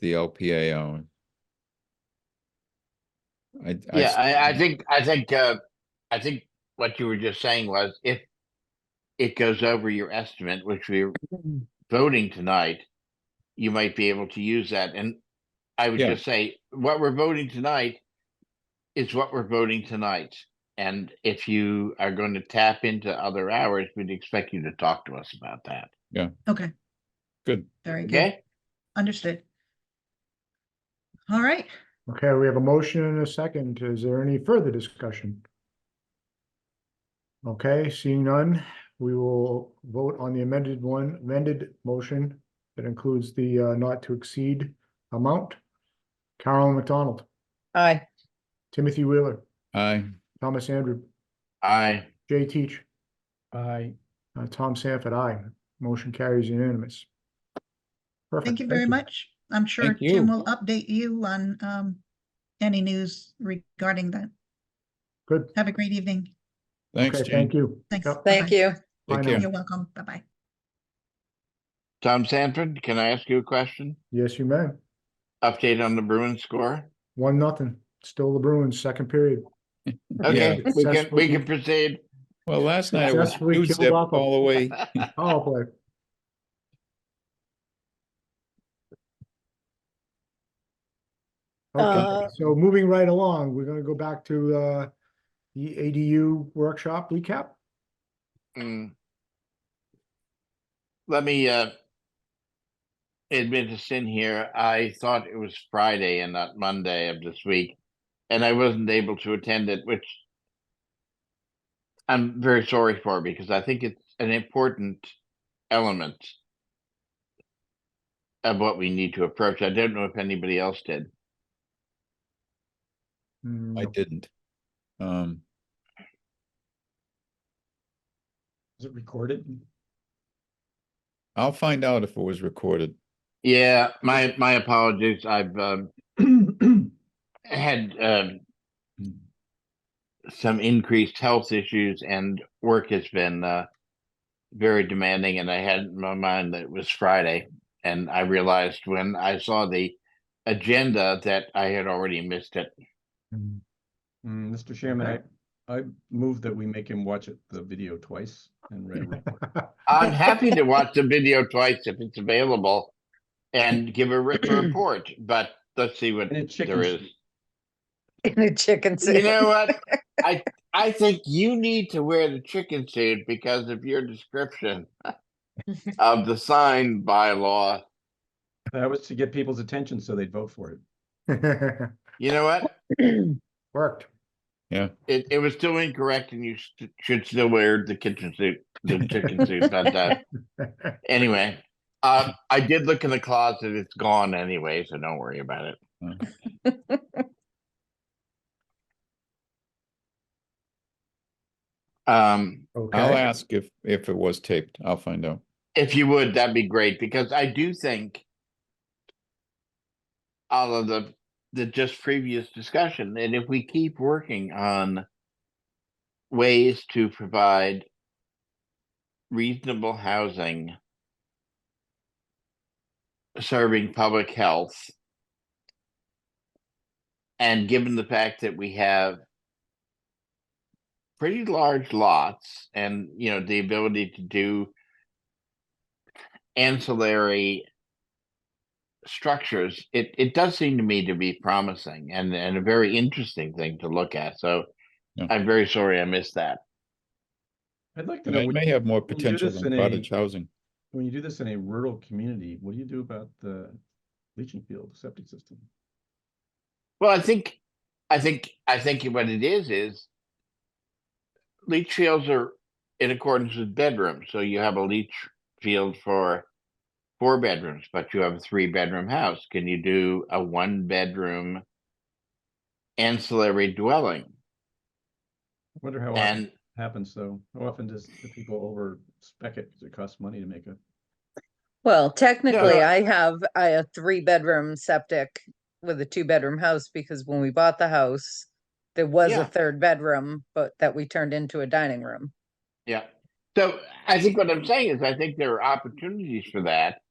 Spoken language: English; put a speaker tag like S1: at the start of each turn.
S1: the LPA own. I.
S2: Yeah,
S1: s-
S2: I, I think, I think, uh, I think what you were just saying was if it goes over your estimate, which we're voting tonight, you might be able to use that. And I would
S1: Yeah.
S2: just say, what we're voting tonight is what we're voting tonight. And if you are going to tap into other hours, we'd expect you to talk to us about that.
S3: Okay,
S1: Good.
S3: very good.
S2: Okay?
S3: Understood. All right,
S4: Okay, we have a motion and a second. Is there any further discussion? Okay, seeing none, we will vote on the amended one, amended motion that includes the uh, not to exceed amount. Carolyn McDonald,
S5: Aye.
S4: Timothy Wheeler,
S1: I,
S4: Thomas Andrew,
S2: I,
S4: Jay Teach,
S6: Aye.
S4: uh, Tom Sanford, aye. Motion carries unanimous.
S3: thank
S4: Perfect,
S3: you very much. I'm sure
S1: Thank
S3: Tim
S1: you.
S3: will update you on um any news regarding that.
S4: Good.
S3: Have a great evening.
S1: thanks,
S4: Okay,
S1: Jane.
S4: thank you.
S3: Thanks.
S4: Yep,
S5: Thank
S3: Bye-bye.
S5: you.
S1: Take
S4: fine.
S1: care.
S3: You're welcome. Bye-bye.
S2: Tom Sanford, can I ask you a question?
S4: Yes, you may.
S2: Update on the Bruins score?
S4: One, nothing. Still the Bruins, second period.
S2: Okay,
S4: Yeah.
S2: we can, we
S4: Successful-
S2: can proceed.
S1: Well, last night it was
S4: Successfully
S1: two
S4: killed
S1: zip
S4: off a-
S1: all the way.
S4: Power play. Okay,
S5: Uh,
S4: so moving right along, we're gonna go back to uh the ADU workshop recap.
S2: Mm. Let me uh admit a sin here. I thought it was Friday and not Monday of this week, and I wasn't able to attend it, which I'm very sorry for because I think it's an important element of what we need to approach. I don't know if anybody else did.
S4: Hmm,
S1: I didn't. Um,
S6: Is it recorded?
S1: I'll find out if it was recorded.
S2: Yeah, my my apologies. I've um had um some increased health issues and work has been uh very demanding and I had in my mind that it was Friday and I realized when I saw the agenda that I had already missed it.
S1: Mm-hmm.
S4: hmm.
S6: Mm, Mr. Chairman, I, I move that we make him watch it, the video twice and read a report.
S2: I'm happy to watch the video twice if it's available and give a written report, but let's see what
S6: And a chicken
S2: there is.
S6: soup.
S5: In a chicken
S2: You
S5: suit.
S2: know what? I I think you need to wear the chicken suit because of your description of the sign bylaw.
S6: That was to get people's attention so they'd vote for it.
S2: You know what?
S4: Worked.
S2: It it was still incorrect, and you st- should still wear the kitchen suit, the chicken suit. Not that. Anyway, uh, I did look in the closet. It's gone anyway, so don't worry about it. Um,
S1: I'll
S4: Okay,
S1: ask if, if it was taped. I'll find out.
S2: if you would, that'd be great because I do think all of the the just previous discussion, and if we keep working on ways to provide reasonable housing serving public health and given the fact that we have pretty large lots and you know the ability to do ancillary structures, it, it does seem to me to be promising and, and a very interesting thing to look at. So
S1: Yeah.
S2: I'm very sorry I missed that.
S6: I'd like to
S1: And
S6: know,
S1: it
S6: when
S1: may have more
S6: you do
S1: potential
S6: this
S1: than
S6: in a-
S1: cottage housing.
S6: when you do this in a rural community, what do you do about the leaching field, septic system?
S2: Well, I think, I think, I think what it is, is leach fields are in accordance with bedrooms. So you have a leach field for four bedrooms, but you have a three bedroom house. Can you do a one bedroom ancillary dwelling?
S6: I Wonder how often
S2: And
S6: it happens, though. How often does the people over spec it? Cause it costs money to make a,
S5: Well, technically,
S2: Yeah.
S5: I have I a three-bedroom septic with a two-bedroom house because when we bought the house, there was
S2: Yeah.
S5: a third bedroom, but that we turned into a dining room.
S2: Yeah. So I think what I'm saying is I think there are opportunities for that.